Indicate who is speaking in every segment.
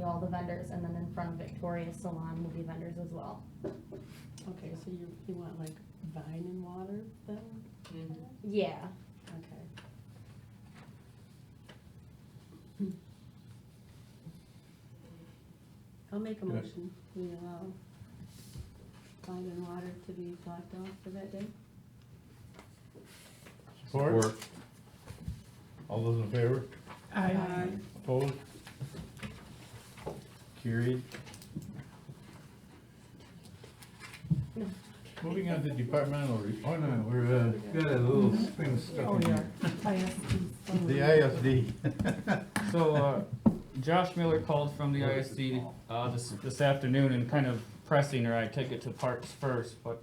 Speaker 1: all the vendors, and then in front of Victoria's Salon will be vendors as well.
Speaker 2: Okay, so you, you want like vine and water then?
Speaker 1: Yeah,
Speaker 2: Okay. I'll make a
Speaker 3: Good.
Speaker 2: motion, we allow vine and water to be blocked off for that day.
Speaker 3: Support? All those in favor?
Speaker 2: Aye.
Speaker 3: Opposed? Carried. Moving on to departmental, re- oh no, we're, uh, got a little thing
Speaker 4: Oh,
Speaker 3: stuck in here.
Speaker 2: Oh,
Speaker 3: The ISD.
Speaker 5: So, uh, Josh Miller called from the ISD, uh, this, this afternoon and kind of pressing her, I took it to parks first, but,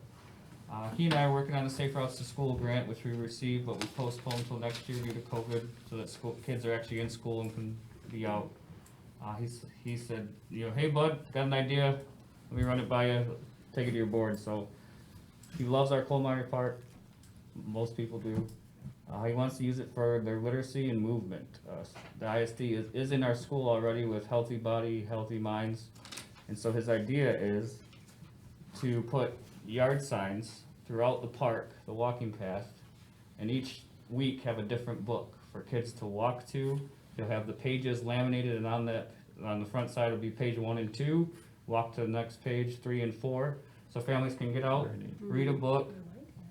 Speaker 5: uh, he and I are working on the Safe Routes to School grant, which we received, but we postponed till next year due to COVID, so that school, kids are actually in school and can be out. Uh, he's, he said, you know, hey bud, got an idea, let me run it by you, take it to your board, so. He loves our coal miner park, most people do. Uh, he wants to use it for their literacy and movement. Uh, the ISD is, is in our school already with Healthy Body, Healthy Minds. And so his idea is to put yard signs throughout the park, the walking path, and each week have a different book for kids to walk to. You'll have the pages laminated and on that, on the front side will be page one and two, walk to the next page, three and four. So families can get out, read a book,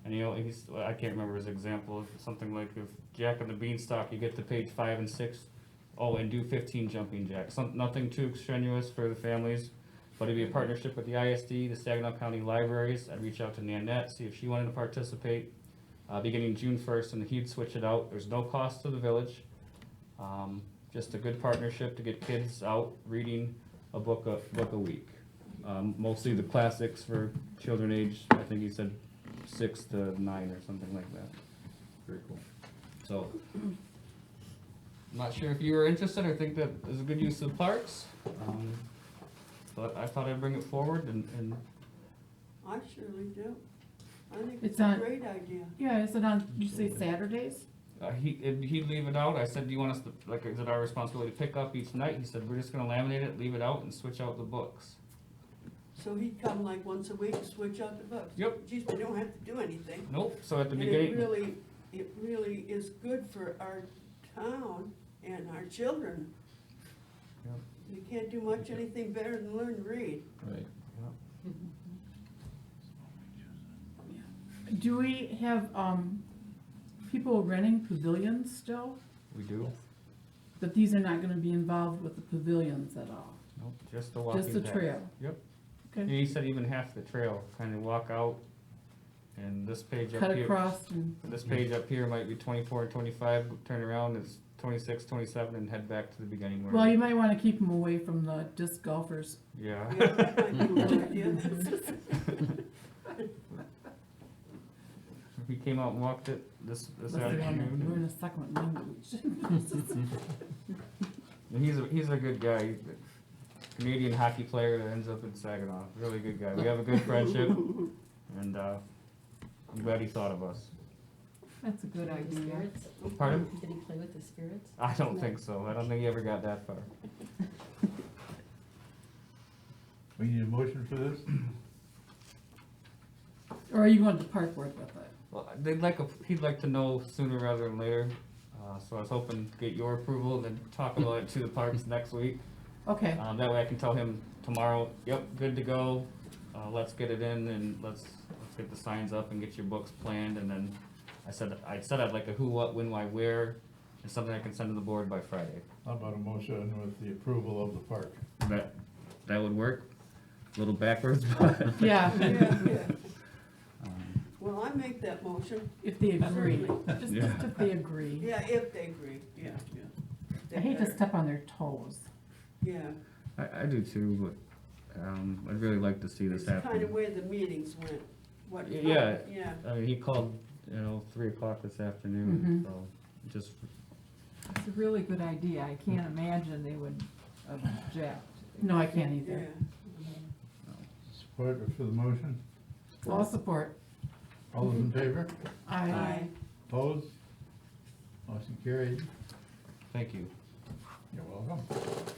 Speaker 5: and you know, he's, I can't remember his example, something like if Jack and the Beanstalk, you get to page five and six, oh, and do fifteen jumping jacks, some, nothing too strenuous for the families. But it'd be a partnership with the ISD, the Saginaw County Libraries, I'd reach out to Nanette, see if she wanted to participate. Uh, beginning June first, and he'd switch it out, there's no cost to the village. Um, just a good partnership to get kids out reading a book a, book a week. Um, mostly the classics for children age, I think he said six to nine or something like that.
Speaker 3: Very cool.
Speaker 5: So, not sure if you were interested or think that is a good use of parks, um, but I thought I'd bring it forward and, and
Speaker 6: I surely do. I think
Speaker 4: It's
Speaker 6: it's a
Speaker 4: not-
Speaker 6: great idea.
Speaker 4: Yeah, is it on, you say Saturdays?
Speaker 5: uh, he, and he'd leave it out. I said, do you want us to, like, is it our responsibility to pick up each night? He said, we're just gonna laminate it, leave it out and switch out the books.
Speaker 6: So he'd come like once a week, switch out the books.
Speaker 5: Yep.
Speaker 6: Geez, we don't have to do anything.
Speaker 5: Nope, so at the
Speaker 6: And it
Speaker 5: beginning,
Speaker 6: really, it really is good for our town and our children.
Speaker 5: Yep.
Speaker 6: You can't do much, anything better than learn to read.
Speaker 3: Right.
Speaker 4: Do we have, um, people renting pavilions still?
Speaker 5: we do,
Speaker 4: But these are not gonna be involved with the pavilions at all,
Speaker 5: nope, just the walking
Speaker 4: just the
Speaker 5: path.
Speaker 4: trail?
Speaker 5: Yep. And
Speaker 4: Okay,
Speaker 5: he said even half the trail, kinda walk out and this page up
Speaker 4: cut
Speaker 5: here.
Speaker 4: across and,
Speaker 5: This page up here might be twenty-four and twenty-five, turn around, it's twenty-six, twenty-seven, and head back to the beginning where.
Speaker 4: well, you might wanna keep them away from the disc golfers.
Speaker 5: Yeah,
Speaker 6: Yeah, that might be a good idea.
Speaker 5: we came out and walked it this, this
Speaker 4: Unless they wanna learn
Speaker 5: afternoon,
Speaker 4: a second language.
Speaker 5: and he's a, he's a good guy, He's a Canadian hockey player that ends up in Saginaw, really good guy, we have a good friendship, and, uh, I'm glad he thought of us.
Speaker 4: That's a good idea.
Speaker 5: Pardon?
Speaker 2: Did he play with the spirits?
Speaker 5: I don't think so, I don't think he ever got that far.
Speaker 3: We need a motion for this?
Speaker 4: Or are you going to park board with it?
Speaker 5: Well, they'd like, a- he'd like to know sooner rather than later, uh, so I was hoping to get your approval, and then talk about it to the parks next week.
Speaker 4: Okay,
Speaker 5: Um, that way I can tell him tomorrow, yep, good to go, uh, let's get it in and let's, let's get the signs up and get your books planned and then I said, I said I'd like a who, what, when, why, where, and something I can send to the board by Friday.
Speaker 3: How about a motion with the approval of the park?
Speaker 5: That, that would work, a little backwards, but.
Speaker 4: yeah,
Speaker 6: Yeah, yeah. Well, I make that motion.
Speaker 4: if they agree,
Speaker 6: Certainly.
Speaker 4: just
Speaker 5: Yeah.
Speaker 4: just if they agree.
Speaker 6: Yeah, if they agree, yeah, yeah.
Speaker 4: I hate to
Speaker 6: Better.
Speaker 4: step on their toes.
Speaker 6: Yeah.
Speaker 5: I, I do too, but, um, I'd really like to see this
Speaker 6: It's kind of
Speaker 5: happen.
Speaker 6: where the meetings went, what.
Speaker 5: Y- yeah.
Speaker 6: Yeah.
Speaker 5: I mean, he called, you know, three o'clock this afternoon,
Speaker 4: Mhm.
Speaker 5: so just
Speaker 7: It's a really good idea. I can't imagine they would object.
Speaker 4: No, I can't either.
Speaker 6: Yeah,
Speaker 3: Support for the motion?
Speaker 4: All support.
Speaker 3: All those in favor?
Speaker 4: I
Speaker 6: Aye.
Speaker 3: Opposed? Motion carried.
Speaker 5: thank you.
Speaker 3: You're welcome.